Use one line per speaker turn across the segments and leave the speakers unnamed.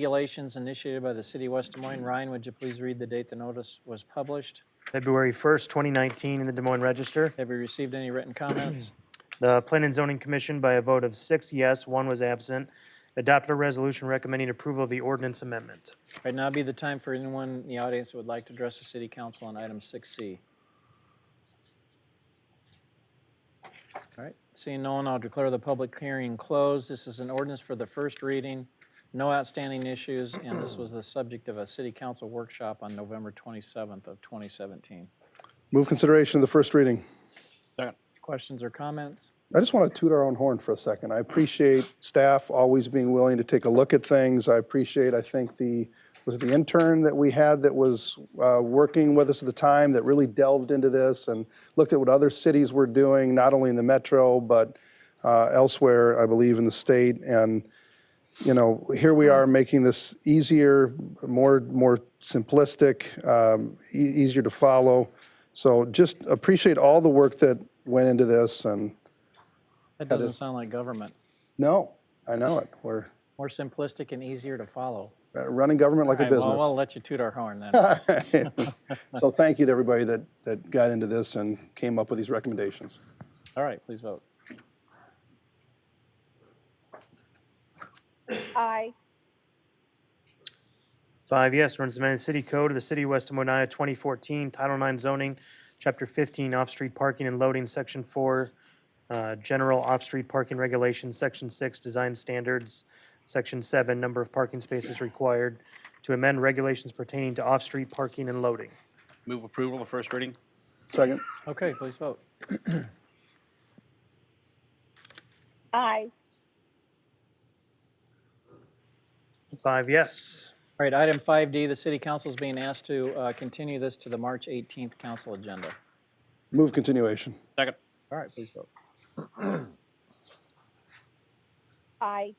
regulations initiated by the city of West Des Moines. Ryan, would you please read the date the notice was published?
February 1st, 2019, in the Des Moines Register.
Have you received any written comments?
The Planning and Zoning Commission, by a vote of six yes, one was absent, adopted a resolution recommending approval of the ordinance amendment.
Right now be the time for anyone in the audience who would like to address the city council on item six C. All right, seeing no one, I'll declare the public hearing closed. This is an ordinance for the first reading, no outstanding issues, and this was the subject of a city council workshop on November twenty-seventh of twenty seventeen.
Move consideration of the first reading.
Questions or comments?
I just want to toot our own horn for a second. I appreciate staff always being willing to take a look at things. I appreciate, I think, the, was it the intern that we had that was uh, working with us at the time that really delved into this and looked at what other cities were doing, not only in the metro, but uh, elsewhere, I believe, in the state. And, you know, here we are making this easier, more, more simplistic, um, e- easier to follow. So just appreciate all the work that went into this and
That doesn't sound like government.
no, I know it. We're
More simplistic and easier to follow.
uh, running government like a
All right, well, I'll
business.
let you toot our horn then.
So thank you to everybody that, that got into this and came up with these recommendations.
All right, please vote.
Aye.
Five yes, ordinance amending the city code of the city of West Des Moines, Iowa, 2014, Title IX zoning, Chapter 15, off-street parking and loading, Section 4, uh, general off-street parking regulations, Section 6, design standards, Section 7, number of parking spaces required, to amend regulations pertaining to off-street parking and loading.
Move approval of the first reading?
Second,
Okay, please vote.
Aye.
Five yes.
All right, item 5D, the city council is being asked to uh, continue this to the March 18th council agenda.
move continuation.
Second.
All right, please vote.
Aye.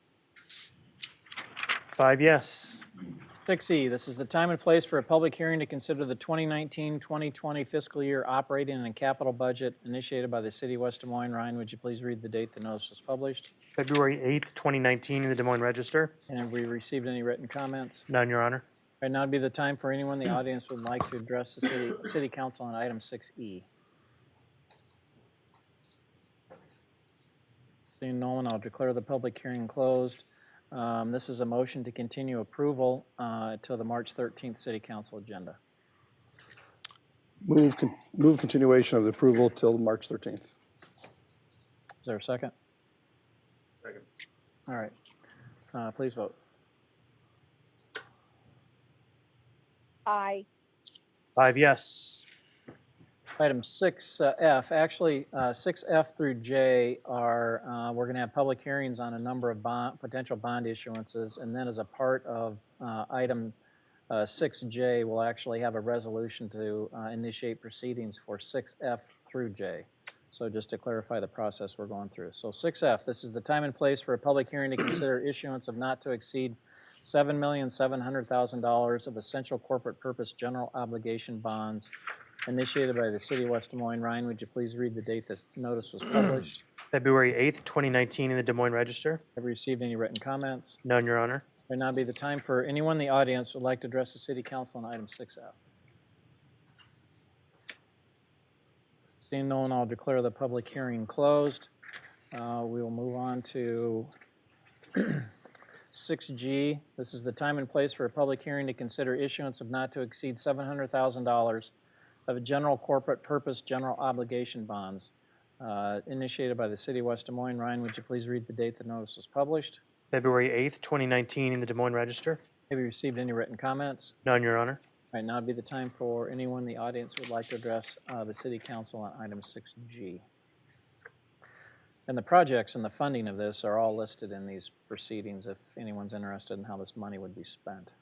Five yes.
6E, E, this is the time and place for a public hearing to consider the 2019-2020 fiscal year operating and capital budget initiated by the city of West Des Moines. Ryan, would you please read the date the notice was published?
February 8th, 2019, in the Des Moines Register.
And have we received any written comments?
None, Your Honor.
Right now would be the time for anyone in the audience who would like to address the city, city council on item E. 6E. Seeing no one, I'll declare the public hearing closed. Um, This is a motion to continue approval uh, till the March 13th city council agenda.
Move, con- move continuation of the approval till March 13th.
Is there a second? Second. All right. Uh, Please vote.
Aye.
Five yes.
Item 6F, actually, uh, 6F through J are, uh, we're going to have public hearings on a number of bond, potential bond issuances, and then as a part of uh, item uh, 6J, we'll actually have a resolution to uh, initiate proceedings for 6F through J. So just to clarify the process we're going through. So 6F, this is the time and place for a public hearing to consider issuance of not to exceed $7,700,000 of essential corporate purpose general obligation bonds initiated by the city of West Des Moines. Ryan, would you please read the date this notice was published?
February 8th, 2019, in the Des Moines Register.
Have you received any written comments?
None, Your Honor.
Would now be the time for anyone in the audience who would like to address the city council on item 6F. Seeing no one, I'll declare the public hearing closed. Uh, We will move on to 6G. This is the time and place for a public hearing to consider issuance of not to exceed $700,000 of general corporate purpose general obligation bonds uh, initiated by the city of West Des Moines. Ryan, would you please read the date the notice was published?
February 8th, 2019, in the Des Moines Register.
Have you received any written comments?
None, Your Honor.
All right, now would be the time for anyone in the audience who would like to address uh, the city council on item 6G. And the projects and the funding of this are all listed in these proceedings if anyone's interested in how this money would be spent.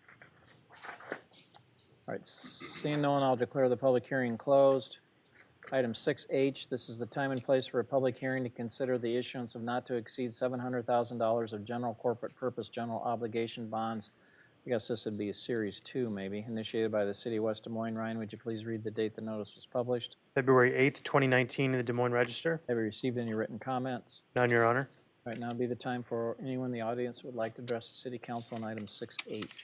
All right, seeing no one, I'll declare the public hearing closed. Item 6H, this is the time and place for a public hearing to consider the issuance of not to exceed $700,000 of general corporate purpose general obligation bonds I guess this would be a Series 2, maybe, initiated by the City of West Des Moines. Ryan, would you please read the date the notice was published?
February 8th, 2019, in the Des Moines Register.
Have you received any written comments?
None, Your Honor.
Right now would be the time for anyone in the audience who would like to address the city council on item 6H.